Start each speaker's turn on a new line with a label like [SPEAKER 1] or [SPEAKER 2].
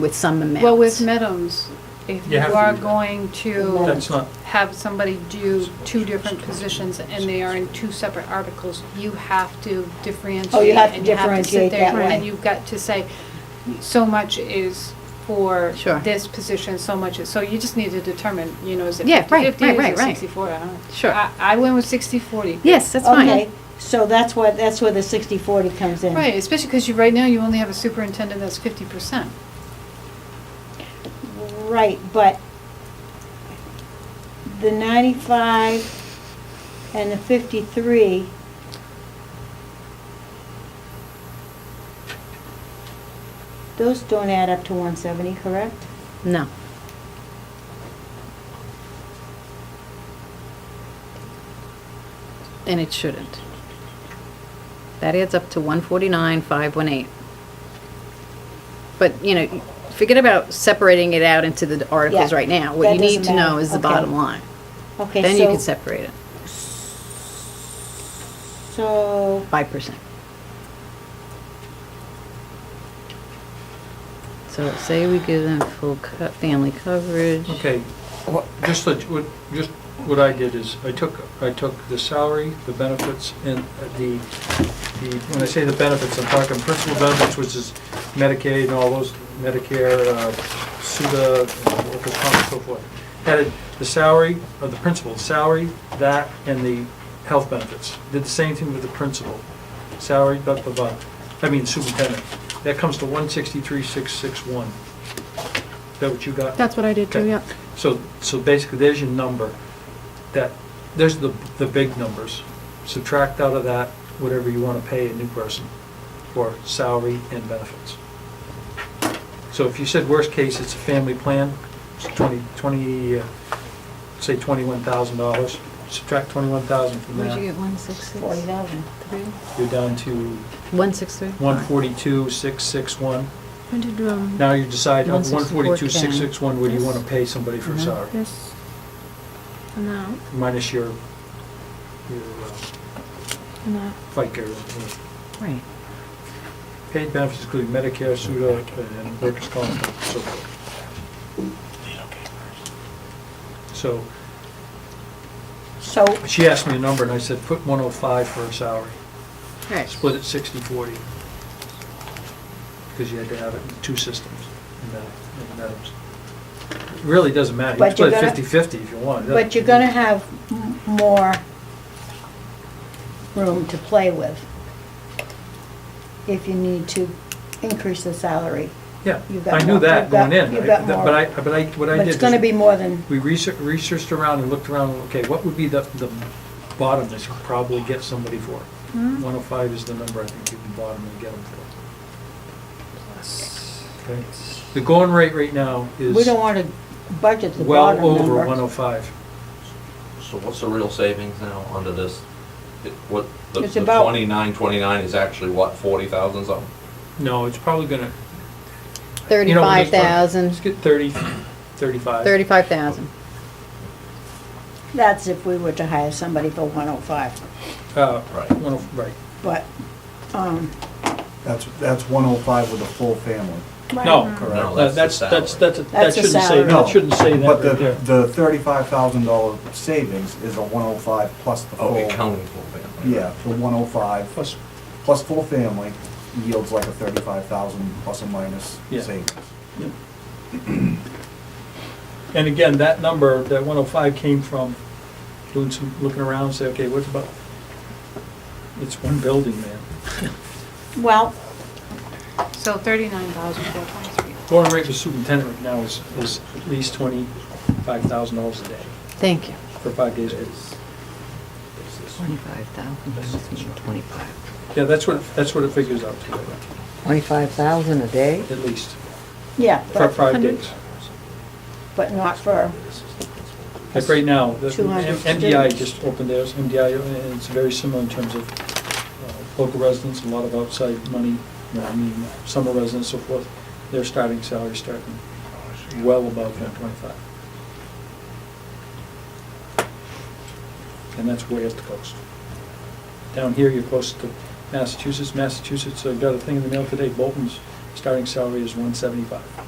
[SPEAKER 1] with some amounts.
[SPEAKER 2] Well, with Middens, if
[SPEAKER 3] You
[SPEAKER 2] you
[SPEAKER 3] have to
[SPEAKER 2] are
[SPEAKER 3] do that.
[SPEAKER 2] going to
[SPEAKER 3] That's not,
[SPEAKER 2] have somebody do two different positions and they are in two separate articles, you have to differentiate.
[SPEAKER 4] Oh, you have to
[SPEAKER 2] and sit
[SPEAKER 4] differentiate
[SPEAKER 2] there
[SPEAKER 4] that way.
[SPEAKER 2] And you've got to say, so much is for
[SPEAKER 1] Sure.
[SPEAKER 2] this position, so much is, so you just need to determine, you know, is it
[SPEAKER 1] Yeah, right,
[SPEAKER 2] 50/50,
[SPEAKER 1] right, right,
[SPEAKER 2] is it
[SPEAKER 1] right.
[SPEAKER 2] 60/40? I don't know.
[SPEAKER 1] Sure.
[SPEAKER 2] I, I went with 60/40.
[SPEAKER 1] Yes, that's fine.
[SPEAKER 4] Okay, so that's why, that's where the sixty forty comes in.
[SPEAKER 2] Right, especially because you, right now, you only have a superintendent that's 50%.
[SPEAKER 4] Right, but the ninety-five and the fifty-three. Those don't add up to one seventy, correct?
[SPEAKER 1] No. And it shouldn't. That adds up to one forty-nine, five one eight. But, you know, forget about separating it out into the articles
[SPEAKER 4] Yeah,
[SPEAKER 1] right now. What
[SPEAKER 4] that
[SPEAKER 1] you need to
[SPEAKER 4] doesn't
[SPEAKER 1] know
[SPEAKER 4] matter.
[SPEAKER 1] is the
[SPEAKER 4] Okay.
[SPEAKER 1] bottom line.
[SPEAKER 4] Okay, so.
[SPEAKER 1] Then you can separate it
[SPEAKER 4] So,
[SPEAKER 1] five percent. So say we give them full co- family coverage.
[SPEAKER 3] okay, just, let- what- just what I did is, I took, I took the salary, the benefits, and the, the, when I say the benefits, I'm talking principal benefits, which is Medicaid and all those, Medicare, uh, SUDA, and workers' comp, and so forth. Added the salary, or the principal, salary, that, and the health benefits. Did the same thing with the principal, salary, blah, blah, blah, I mean superintendent. That comes to one sixty-three, six, six, one. Is that what you got?
[SPEAKER 5] That's what I did too,
[SPEAKER 3] Okay.
[SPEAKER 5] yeah.
[SPEAKER 3] So, so basically, there's your number, that, there's the, the big numbers. Subtract out of that whatever you want to pay a new person for salary and benefits. So if you said worst case, it's a family plan, it's 20, 20, uh, say $21,000, subtract 21,000 from
[SPEAKER 1] Where'd you
[SPEAKER 3] that,
[SPEAKER 1] get one six six?
[SPEAKER 4] forty thousand.
[SPEAKER 3] you're down to
[SPEAKER 1] One six three?
[SPEAKER 3] 142,661.
[SPEAKER 5] I did, um,
[SPEAKER 3] Now you decide, of
[SPEAKER 1] 164K.
[SPEAKER 3] 142,661, what do you want to pay somebody for
[SPEAKER 1] Mhm.
[SPEAKER 3] salary?
[SPEAKER 5] this amount
[SPEAKER 3] minus your, your uh,
[SPEAKER 5] and that.
[SPEAKER 3] FICA, uh,
[SPEAKER 1] Right.
[SPEAKER 3] paid benefits including Medicare, SUDA, and workers' comp, and so forth. So,
[SPEAKER 4] So,
[SPEAKER 3] she asked me a number, and I said, put 105 for her salary,
[SPEAKER 1] Right.
[SPEAKER 3] split it 60/40, because you had to have it in two systems, and that, and that was- it really doesn't matter, you can
[SPEAKER 4] But you're
[SPEAKER 3] split it
[SPEAKER 4] gonna-
[SPEAKER 3] 50/50 if you want. It
[SPEAKER 4] but you're
[SPEAKER 3] doesn't-
[SPEAKER 4] gonna have m- more room to play with if you need to increase the salary.
[SPEAKER 3] Yeah,
[SPEAKER 4] you've got
[SPEAKER 3] I knew
[SPEAKER 4] more-
[SPEAKER 3] that
[SPEAKER 4] you've got-
[SPEAKER 3] going in,
[SPEAKER 4] you've
[SPEAKER 3] I-
[SPEAKER 4] got
[SPEAKER 3] but
[SPEAKER 4] more.
[SPEAKER 3] I, but I, what I did.
[SPEAKER 4] But it's
[SPEAKER 3] is-
[SPEAKER 4] gonna be more than,
[SPEAKER 3] We research- researched around and looked around, okay, what would be the, the bottom that you could probably get somebody for?
[SPEAKER 4] Hmm?
[SPEAKER 3] 105 is the number I think you can bottom and get them for. Okay. The going rate right now
[SPEAKER 4] we
[SPEAKER 3] is
[SPEAKER 4] don't wanna budget the
[SPEAKER 3] well
[SPEAKER 4] bottom
[SPEAKER 3] over
[SPEAKER 4] number.
[SPEAKER 3] 105.
[SPEAKER 6] So what's the real savings now under this? It- What, the
[SPEAKER 4] It's
[SPEAKER 6] the
[SPEAKER 4] about-
[SPEAKER 6] 29, 29 is actually what, 40,000 something?
[SPEAKER 3] No, it's probably gonna. you know,
[SPEAKER 1] Thirty-five
[SPEAKER 3] let's- Let's
[SPEAKER 1] thousand,
[SPEAKER 3] get 30, 35.
[SPEAKER 1] thirty-five thousand.
[SPEAKER 4] That's if we were to hire somebody for one oh five,
[SPEAKER 3] Uh,
[SPEAKER 6] Right.
[SPEAKER 3] 105, right.
[SPEAKER 4] but, um,
[SPEAKER 7] That's, that's 105 with a full family.
[SPEAKER 3] No, uh,
[SPEAKER 6] No,
[SPEAKER 3] that's,
[SPEAKER 6] that's the
[SPEAKER 3] that's,
[SPEAKER 6] salary.
[SPEAKER 3] that's, that
[SPEAKER 4] That's the
[SPEAKER 3] shouldn't say,
[SPEAKER 4] salary.
[SPEAKER 3] that shouldn't say
[SPEAKER 7] But
[SPEAKER 3] that
[SPEAKER 7] the,
[SPEAKER 3] right there.
[SPEAKER 7] the $35,000 savings is a 105 plus the full.
[SPEAKER 6] Oh, accounting for family.
[SPEAKER 7] Yeah, the 105
[SPEAKER 3] Plus,
[SPEAKER 7] plus full family yields like a 35,000 plus or minus
[SPEAKER 3] Yeah.
[SPEAKER 7] savings.
[SPEAKER 3] And again, that number, that 105 came from doing some, looking around, say, okay, what's about, it's one building, man.
[SPEAKER 4] well,
[SPEAKER 2] So 39,423.
[SPEAKER 3] Going rate for superintendent right now is, is at least $25,000 a day
[SPEAKER 1] Thank you.
[SPEAKER 3] for five days. a week.
[SPEAKER 1] Twenty-five thousand, twenty-five.
[SPEAKER 3] Yeah, that's what, that's what it figures out to, right now,
[SPEAKER 8] Twenty-five thousand a day?
[SPEAKER 3] at least,
[SPEAKER 4] yeah,
[SPEAKER 3] for
[SPEAKER 4] but,
[SPEAKER 3] five days.
[SPEAKER 4] but not for,
[SPEAKER 3] Like right now, the
[SPEAKER 4] 200
[SPEAKER 3] M- MDI
[SPEAKER 4] students.
[SPEAKER 3] just opened theirs, MDI, and it's very similar in terms of uh, local residents, a lot of outside money, you know, I mean, summer residents, so forth. Their starting salary starting
[SPEAKER 6] Oh,
[SPEAKER 3] well above one twenty-five. And that's way up the coast. Down here, you're close to Massachusetts, Massachusetts, I got a thing in the mail today, Bolton's starting salary is one seventy-five.